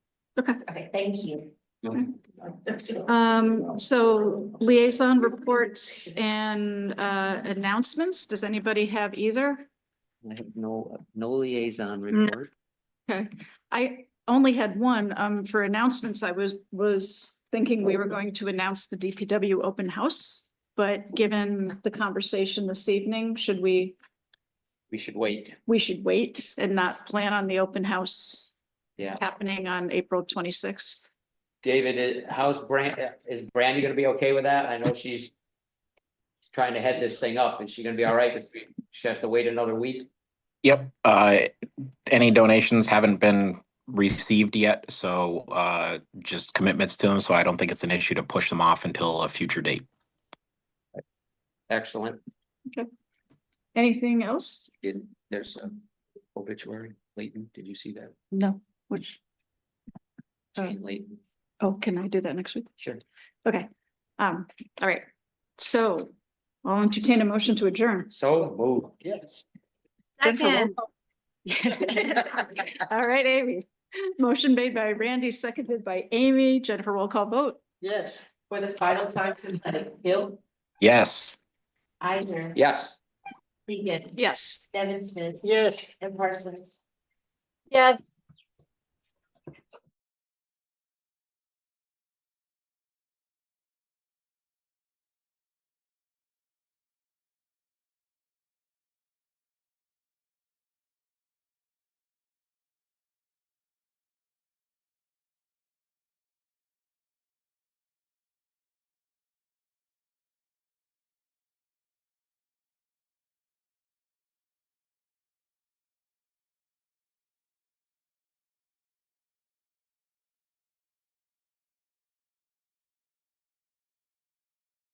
Okay. Okay, thank you. Um, so liaison reports and uh announcements, does anybody have either? I have no, no liaison No. report. I only had one, um, for announcements, I was, was thinking we were going to announce the DPW open house. But given the conversation this evening, should we, We should wait. we should wait and not plan on the open house Yeah. happening on April twenty-sixth? David, i- how's Brand, is Brandy gonna be okay with that? I know she's trying to head this thing up. Is she gonna be all right if we, she has to wait another week? Yep, uh, any donations haven't been received yet, so, uh, just commitments to them, so I don't think it's an issue to push them off until a future date. Excellent. Anything else? Did, there's a obituary, Leighton, did you see that? No, which, Oh. Jane Leighton, oh, can I do that next week? sure. Okay, um, all right, so I'll entertain a motion to adjourn. So move. Yes. Jennifer, roll call. All right, Amy. Motion made by Randy, seconded by Amy. Jennifer roll call vote. Yes. For the final time tonight, Hill, Yes. Eisner, Yes. Regan, Yes. Nevin Smith, Yes. and Parsons. Yes.